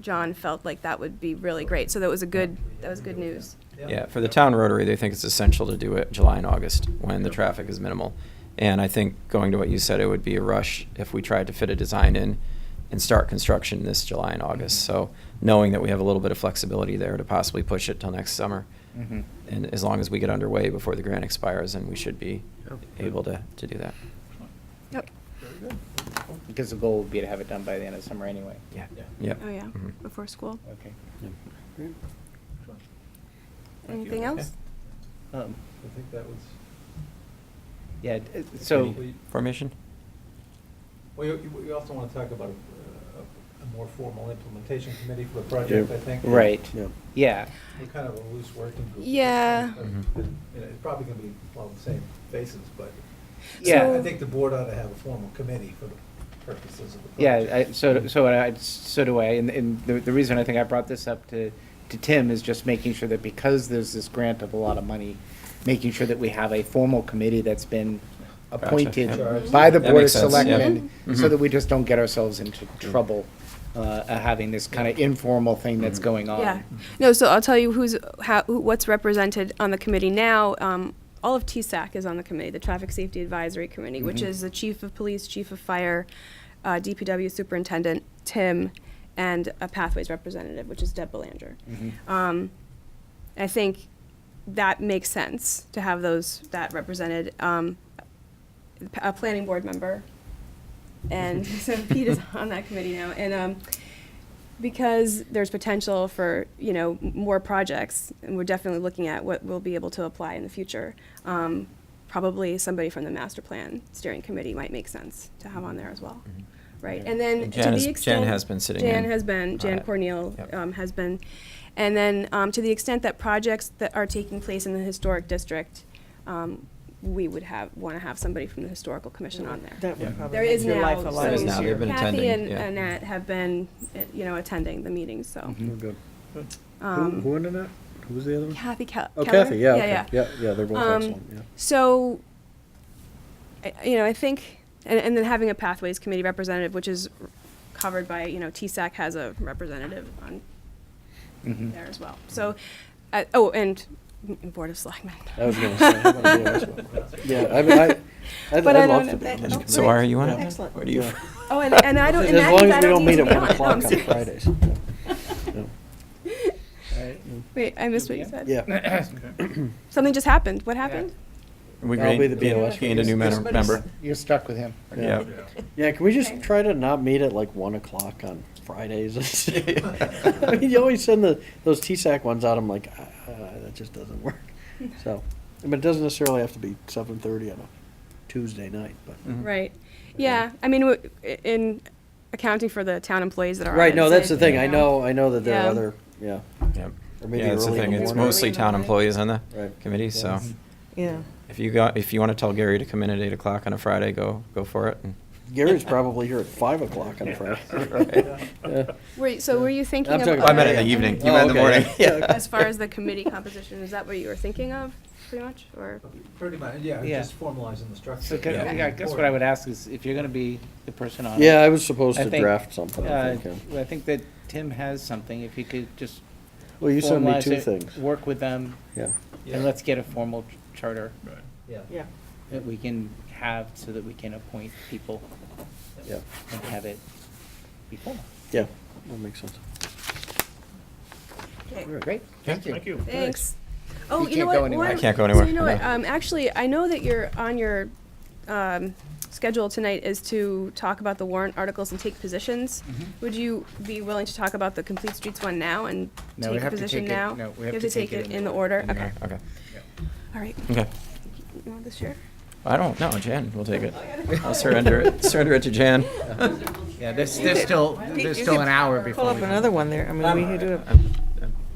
John felt like that would be really great. So that was a good, that was good news. Yeah, for the town rotary, they think it's essential to do it July and August when the traffic is minimal. And I think going to what you said, it would be a rush if we tried to fit a design in and start construction this July and August. Mhm. Mm-hmm. So knowing that we have a little bit of flexibility there to possibly push it till next summer. Mhm. And as long as we get underway before the grant expires, then we should be Yeah. able to, to do that. Yep. Very good. Because the goal would be to have it done by the end of summer anyway. Yeah. Yeah. Yep. Oh, yeah, Mhm. before school. Okay. Excellent. Thank you. Anything else? Um, I think that was. Yeah, d- uh, so, complete. Formation? Well, you, you- you also want to talk about a- a, a more formal implementation committee for the project, Yeah. I think. right, Yeah. yeah, We're kind of a loose working group. Yeah. Mhm. Mm-hmm. You know, It's probably going to be on the same basis, but. Yeah. I think the board ought to have a formal committee for the purposes of the project. yeah, I, so, so I, so do I, and, and the, the reason I think I brought this up to, to Tim is just making sure that because there's this grant of a lot of money, making sure that we have a formal committee that's been Gotcha, appointed yeah. by the That Board of makes sense, yeah. Selectmen, Mhm. so that we just don't get ourselves into Mm-hmm. trouble, uh, uh, having this kind of informal thing that's Mhm. going on. Yeah. No, so I'll tell you who's, how, who- what's represented on the committee now. Um, All of TSAC is on the committee, the Traffic Safety Advisory Committee, which Mhm. is the chief of police, chief of fire, uh, DPW superintendent, Tim, and a Pathways representative, which is Deb Belanger. Mhm. Um, I think that makes sense to have those, that represented. Um, p- A planning board member, and Mm-hmm. so Pete is on that committee now, and um, because there's potential for, you know, m- more projects, and we're definitely looking at what we'll be able to apply in the future, um, probably somebody from the master plan steering committee might make sense to have on there as well, Mhm. right? Yeah. And then, And to Jan the is- Jan extent- has been sitting Jan in has been, on Jan it. Corneal Yep. um, has been. And then, um, to the extent that projects that are taking place in the historic district, um, we would have, want to have somebody from the historical commission on there. That would probably There is make now. your life a so lot There is now, easier. they've been Kathy attending, and yeah. Annette have been, uh, you know, attending the meetings, so. Mhm. Good. Mm-hmm. Who, um, who ended that? Who was the other one? Kathy Ke- Oh, Keller? Kathy, yeah, okay. yeah. Yeah, yeah, they're both Um, excellent, yeah. So, I- you know, I think, and, and then having a pathways committee representative, which is covered by, you know, TSAC has a representative on Mm-hmm. Mhm. there as well. So, uh, oh, and m- Board of Selectmen. I was gonna say, I'm gonna do this one. Yeah, I mean, I, I'd, But I I'd love don't know. Oh, to be That- on that. So are you on it? Excellent. Where do you? Yeah. Oh, and, and I don't, As and that long means as I we don't don't need meet to at be on one it. No, I'm o'clock on serious. Fridays. Yeah. Wait, I missed what you said. Yeah, Something just happened. What happened? We I'll be gained, the BOS. gained a new Yes, mem- but member. You're stuck with him. Yeah. yeah, can we just try to not meet at like one o'clock on Fridays? I mean, you always send the, those TSAC ones out, I'm like, ah, that just doesn't work. So, but it doesn't necessarily have to be seven thirty on a Tuesday night, but. Mhm. Right. Yeah, I mean, w- i- in accounting for the town employees that are on Right, it, no, it's that's the like, thing, you I know, I know that there are Yeah. other, yeah, Yep. or maybe yeah, that's the early in thing. the It's morning. mostly town employees on the Right. committee, so Yes. Yeah. if you got, if you want to tell Gary to come in at eight o'clock on a Friday, go, go for it. and- Gary's probably here at five o'clock on a Friday. Yeah. Were, so were you thinking I'm of? talking I meant in other- the evening. You Oh, meant in the okay. morning. Yeah, okay. As far as the committee composition, is that what you were thinking of, pretty much, or? Pretty much, yeah, Yeah. just formalizing the structure. So can- Yeah. I guess what I would ask is if you're gonna be the person on. it, Yeah, I was supposed I to think, draft something, I uh, think. yeah. I think that Tim has something, if you could just. Well, you sent me formalize two it, things, Work with them, yeah. Yeah. and let's get a formal ch- charter Yeah. Yeah. that we can have so that we can appoint people Yeah, and have it be formal. yeah, that makes sense. Okay. All right. Great, thank you. you. Thanks. Oh, You you know can't what? go anywhere. one- I can't go So you anywhere, know what, no. um, actually, I know that you're on your, um, schedule tonight is to talk about the warrant articles and take positions. Mm-hmm. Would you be willing to talk about the Complete Streets one now and No, we take a have to position take it- now? no, we have to take it in the the order, In the okay, morning, Okay. all right. Okay. You want this chair? I don't know, Jan will take it. I'll surrender it, surrender it to Jan. Yeah, there's, there's still, there's You still could an hour Pull before up we. another one there. I mean, we could do it.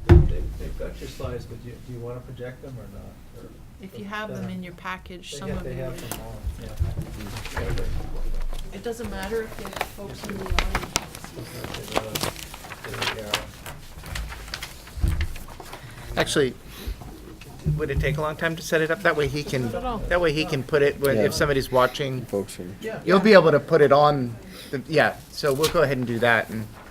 They've they've got your slides, but you- do you want to project them or not? Or- If you have them in your package, They some have- of They you, have them all, yeah. it doesn't matter if there's folks in the audience. uh, Actually, would it take a long time to set it up? That way he can, Not at all. that way he can put it, when- Yeah. if somebody's watching, Folks, and- Yeah. you'll be able to put it on, the- yeah, so we'll go ahead and do that and.